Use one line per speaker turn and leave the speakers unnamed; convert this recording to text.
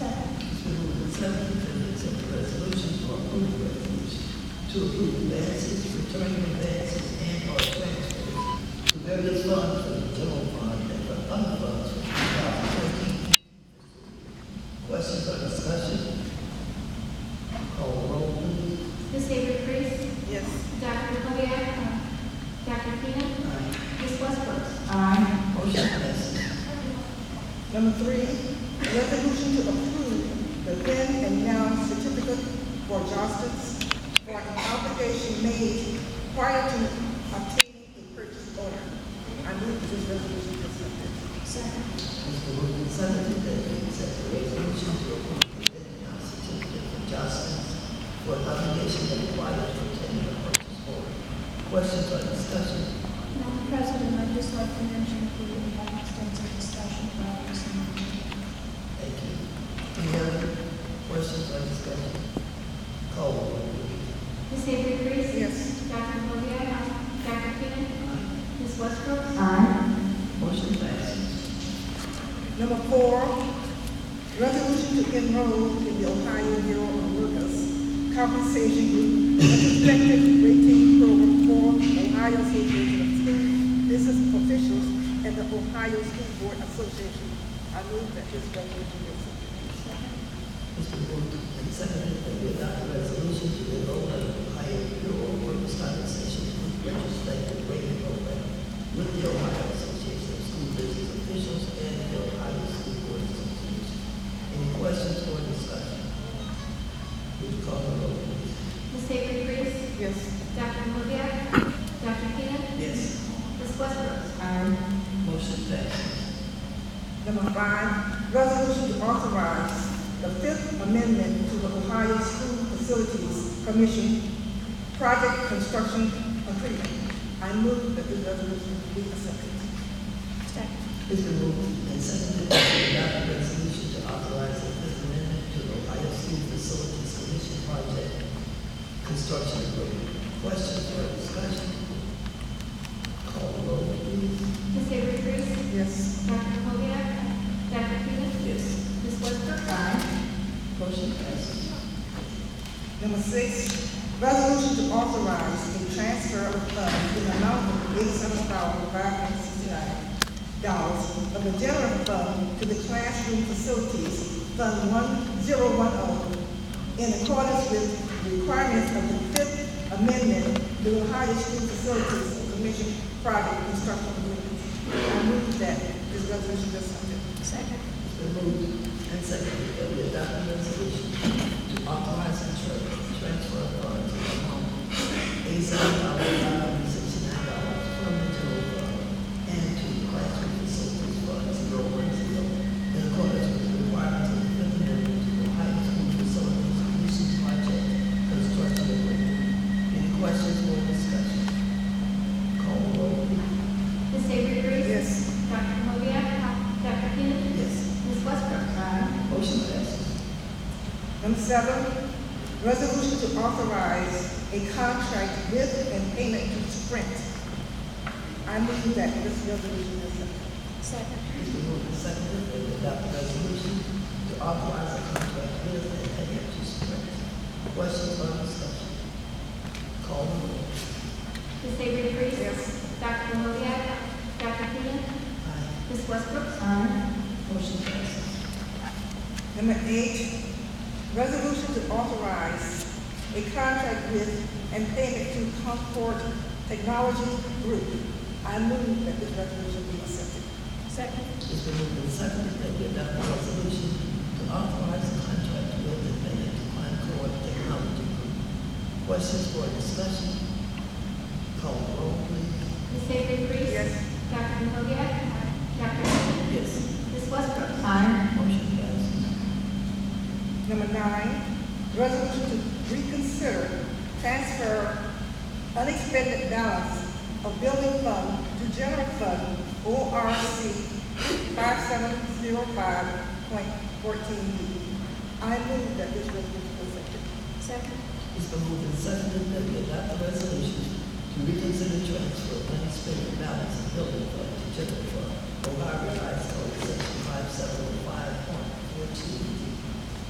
Second.
It's been moved and seconded that we accept the resolution or approve the resolution to approve advances, return of advances, and or transfers to various funds for the general fund and for other funds for 2014. Questions or discussion? Call roll, please.
Ms. Xavier Priest,
Yes.
Dr. Hovia,
uh,
Dr. Keenan,
Aye.
Ms. Westbrook.
Aye.
Motion passes.
Number three, a resolution to approve the then and now certificate for adjustments for an obligation made prior to obtaining a purchase order. I move that this resolution be accepted.
It's been moved and seconded that we accept the resolution to approve the then-and-now certificate of adjustments for an obligation that required to obtain a purchase order. Questions or discussion?
Madam President, I'd just like to mention that we had an extensive discussion about this.
Thank you. Any other questions or discussion? Call the roll, please.
Ms. Xavier Priest.
Yes.
Dr. Hovia, Dr. Keenan, Ms. Westbrook.
Motion passes.
Number four, resolution to enroll in the Ohio Bureau of Workers' Compensation Group Effective Rating Program for Ohio Association of School Business Officials and the Ohio School Board Association. I move that this resolution be accepted.
It's been moved and seconded that we adopt the resolution to enroll in the Ohio Bureau of Workers' Compensation Group Retrospective Rating Program with the Ohio Association of School Business Officials and the Ohio School Board Association. Any questions or discussion? Would you call the roll, please?
Ms. Xavier Priest,
Yes.
Dr. Hovia, Dr. Keenan,
Yes.
Ms. Westbrook.
Motion passes.
Number five, resolution to authorize the Fifth Amendment to the Ohio School Facilities Commission Project Construction Agreement. I move that this resolution be accepted.
It's been moved and seconded that we adopt the resolution to authorize the Fifth Amendment to the Ohio School Facilities Commission Project Construction Agreement. Questions or discussion? Call the roll, please.
Ms. Xavier Priest,
Yes.
Dr. Hovia, Dr. Keenan,
Yes.
Ms. Westbrook.
Motion passes.
Number six, resolution to authorize a transfer of funds in the amount of eighty-seven thousand five hundred sixty-nine dollars of the general fund to the classroom facilities, Fund one zero one oh, in accordance with requirements of the Fifth Amendment to the Ohio School Facilities Commission Private Construction Agreement. I move that this resolution be accepted.
It's been moved and seconded that we adopt the resolution to authorize and tra- transfer funds in the amount of eighty-seven thousand five hundred sixty-nine dollars from the general fund and to the classroom facilities fund zero one zero in accordance with the requirements of the Fifth Amendment to the Ohio School Facilities Commission Project Construction Agreement. Any questions or discussion? Call roll, please.
Ms. Xavier Priest.
Yes.
Dr. Hovia, Dr. Keenan,
Yes.
Ms. Westbrook.
Motion passes.
Number seven, resolution to authorize a contract with and payment to Sprint. I move that this resolution is accepted.
Second.
It's been moved and seconded that we adopt the resolution to authorize a contract with and payment to Sprint. Questions or discussion? Call the roll.
Ms. Xavier Priest.
Yes.
Dr. Hovia, Dr. Keenan,
Aye.
Ms. Westbrook.
Motion passes.
Number eight, resolution to authorize a contract with and payment to Comfort Technology Group. I move that this resolution be accepted.
Second.
It's been moved and seconded that we adopt the resolution to authorize a contract with and payment to Concord Technology Group. Questions or discussion? Call the roll, please.
Ms. Xavier Priest.
Yes.
Dr. Hovia, Dr. Keenan,
Yes.
Ms. Westbrook.
Motion passes.
Number nine, resolution to reconsider transfer unexpended balance of building fund to general fund, ORC five seven zero five point fourteen B. I move that this resolution be accepted.
Second.
It's been moved and seconded that we adopt the resolution to reconsider transfer of unexpended balance of building fund to general fund, Ohio Revised Code, section five seven five point fourteen.